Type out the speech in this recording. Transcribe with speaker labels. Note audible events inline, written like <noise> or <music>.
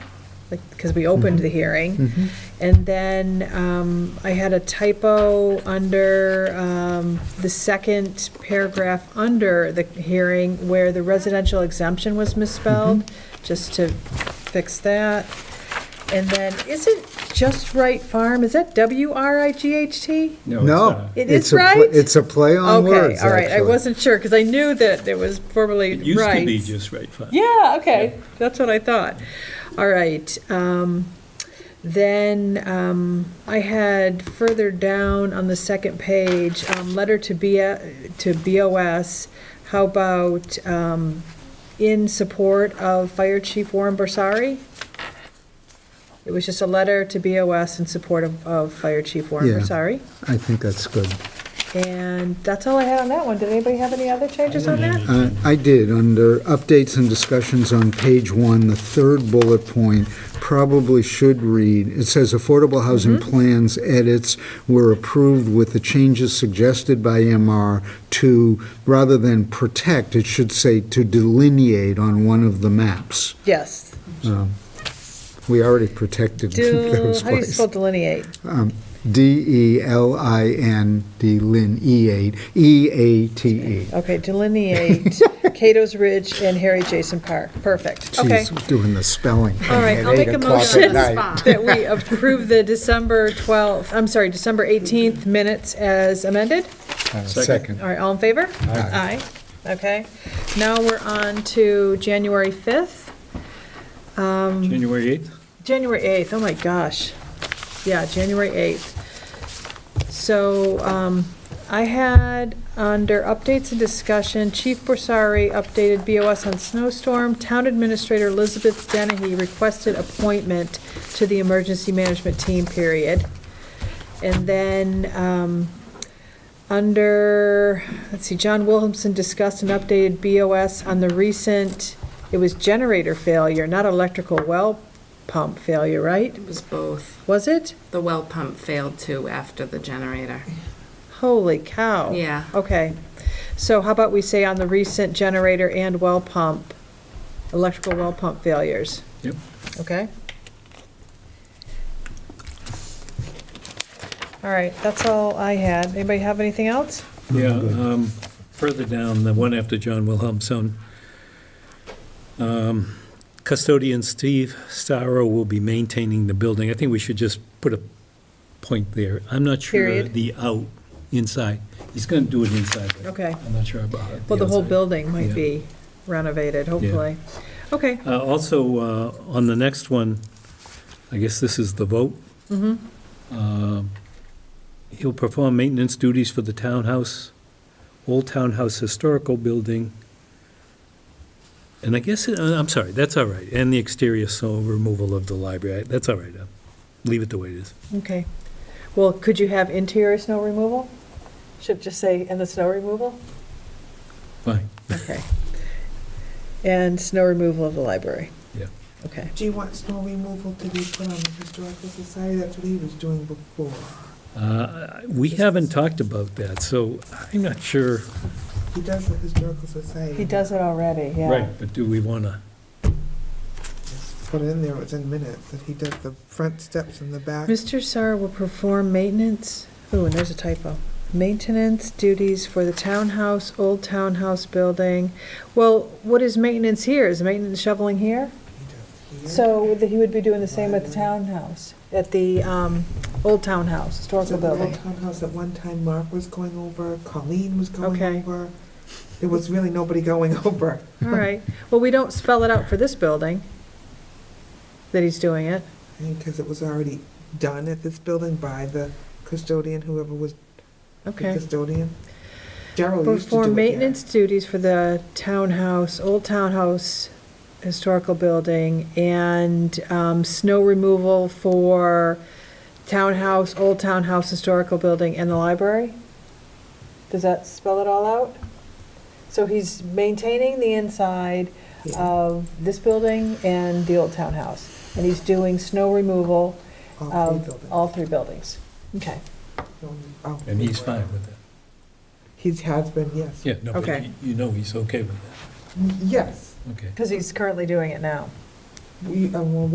Speaker 1: like, because we opened
Speaker 2: Mm-hmm.
Speaker 1: the hearing. And then um, I had a typo under um, the second paragraph under the hearing where the residential exemption was misspelled,
Speaker 2: Mm-hmm.
Speaker 1: just to fix that. And then, isn't Just Right Farm, is that W-R-I-G-H-T?
Speaker 3: it's
Speaker 2: No.
Speaker 3: not.
Speaker 1: It
Speaker 2: it's
Speaker 1: is
Speaker 2: a pl-
Speaker 1: right?
Speaker 2: It's a play on
Speaker 1: Okay,
Speaker 2: words,
Speaker 1: all right, I
Speaker 2: actually.
Speaker 1: wasn't sure, because I knew that there was formerly
Speaker 3: It
Speaker 1: rights.
Speaker 3: used to be just right front.
Speaker 1: Yeah, okay, that's what I thought. All right, um, then, um, I had further down on the second page, um, letter to B, to BOS, how about, um, in support of Fire Chief Warren Borsari? It was just a letter to BOS in support of, of Fire Chief Warren
Speaker 2: Yeah.
Speaker 1: Borsari.
Speaker 2: I think that's good.
Speaker 1: And that's all I had on that one. Did anybody have any other changes on that?
Speaker 2: Uh, I did, under updates and discussions on page one, the third bullet point probably should read, it says affordable housing
Speaker 1: Mm-hmm.
Speaker 2: plans edits were approved with the changes suggested by MR to, rather than protect, it should say to delineate on one of the maps. <laughs>
Speaker 1: Yes.
Speaker 2: We already protected
Speaker 1: Do,
Speaker 2: <laughs> those
Speaker 1: how do you
Speaker 2: places.
Speaker 1: spell delineate?
Speaker 2: Um, E D-E-L-I-N, delineate, E-A-T-E.
Speaker 1: Okay,
Speaker 2: <laughs>
Speaker 1: delineate Cato's Ridge and Harry Jason Park. Perfect. Okay.
Speaker 2: She's doing the spelling.
Speaker 1: All right,
Speaker 2: at
Speaker 1: I'll make
Speaker 2: eight
Speaker 1: a
Speaker 2: o'clock at
Speaker 1: motion
Speaker 2: night.
Speaker 1: that we approve the December 12th, I'm sorry, December 18th minutes as amended.
Speaker 2: Uh,
Speaker 3: Second.
Speaker 2: Second.
Speaker 1: All right, all in favor? Aye.
Speaker 2: Aye.
Speaker 1: Okay. Now we're on to January 5th.
Speaker 3: January 8th?
Speaker 1: January 8th, oh my gosh. Yeah, January 8th. So um, I had, under updates and discussion, Chief Borsari updated BOS on snowstorm. Town Administrator Elizabeth Dennehy requested appointment to the Emergency Management Team, period. And then, um, under, let's see, John Williamson discussed an updated BOS on the recent, it was generator failure, not electrical well pump failure, right?
Speaker 4: It was both.
Speaker 1: Was it?
Speaker 4: The well pump failed too after the generator.
Speaker 1: Holy cow.
Speaker 4: Yeah.
Speaker 1: Okay. So how about we say on the recent generator and well pump, electrical well pump failures,
Speaker 3: Yep.
Speaker 1: okay? All right, that's all I had. Anybody have anything else?
Speaker 3: Yeah, um, further down, the one after John Wilhelmson. Um, Custodian Steve Starro will be maintaining the building. I think we should just put a point there. I'm not sure
Speaker 1: Period.
Speaker 3: the out, inside. He's going to do it inside. but
Speaker 1: Okay.
Speaker 3: I'm not sure about it.
Speaker 1: Well, the whole
Speaker 3: outside.
Speaker 1: building might
Speaker 3: Yeah.
Speaker 1: be renovated, hopefully. Okay,
Speaker 3: Uh, Also, uh, on the next one, I guess this is the vote.
Speaker 1: Mm-hmm.
Speaker 3: Um, He'll perform maintenance duties for the townhouse, Old Townhouse Historical Building, and I guess, uh, I'm sorry, that's all right, and the exterior snow removal of the library, that's all right, uh, leave it the way it is.
Speaker 1: okay. Well, could you have interior snow removal? Should it just say, and the snow removal?
Speaker 3: Fine,
Speaker 1: Okay. And snow removal of the library,
Speaker 3: yeah.
Speaker 1: okay.
Speaker 5: Do you want snow removal to be put on the historical society? That's what he was doing before.
Speaker 3: Uh, We haven't talked about that, so I'm not sure.
Speaker 5: He does the historical society.
Speaker 1: He does it already, yeah.
Speaker 3: But do we want to?
Speaker 5: Put it in there, it's in minutes, that he does the front steps and the back.
Speaker 1: Mr. Sarr will perform maintenance, ooh, and there's a typo. Maintenance duties for the townhouse, old townhouse building. Well, what is maintenance here? Is maintenance shoveling here?
Speaker 5: He does here.
Speaker 1: So that he would be doing the same at the townhouse, at the um, old townhouse,
Speaker 5: So
Speaker 1: historical
Speaker 5: the
Speaker 1: building.
Speaker 5: old townhouse at one time, Mark was going over, Colleen was going
Speaker 1: Okay.
Speaker 5: over. There was really nobody going <laughs> over.
Speaker 1: <laughs> All right, well, we don't spell it out for this building, that he's doing it.
Speaker 5: Because it was already done at this building by the custodian, whoever was the
Speaker 1: Okay.
Speaker 5: custodian. Daryl used to do it
Speaker 1: Perform
Speaker 5: here.
Speaker 1: maintenance duties for the townhouse, old townhouse, historical building, and um, snow removal for townhouse, old townhouse, historical building, and the library? Does that spell it all out? So he's maintaining the inside
Speaker 5: Yeah,
Speaker 1: of this building and the old townhouse, and he's doing snow removal
Speaker 5: all three
Speaker 1: of
Speaker 5: buildings.
Speaker 1: um, all three buildings. Okay,
Speaker 5: Oh,
Speaker 3: And he's fine with that.
Speaker 5: He has been, yes.
Speaker 3: Yeah, no, but
Speaker 1: Okay.
Speaker 3: you- you know he's okay with
Speaker 5: Yes.
Speaker 3: that, okay.
Speaker 1: because he's currently doing it now.
Speaker 5: We, uh, well,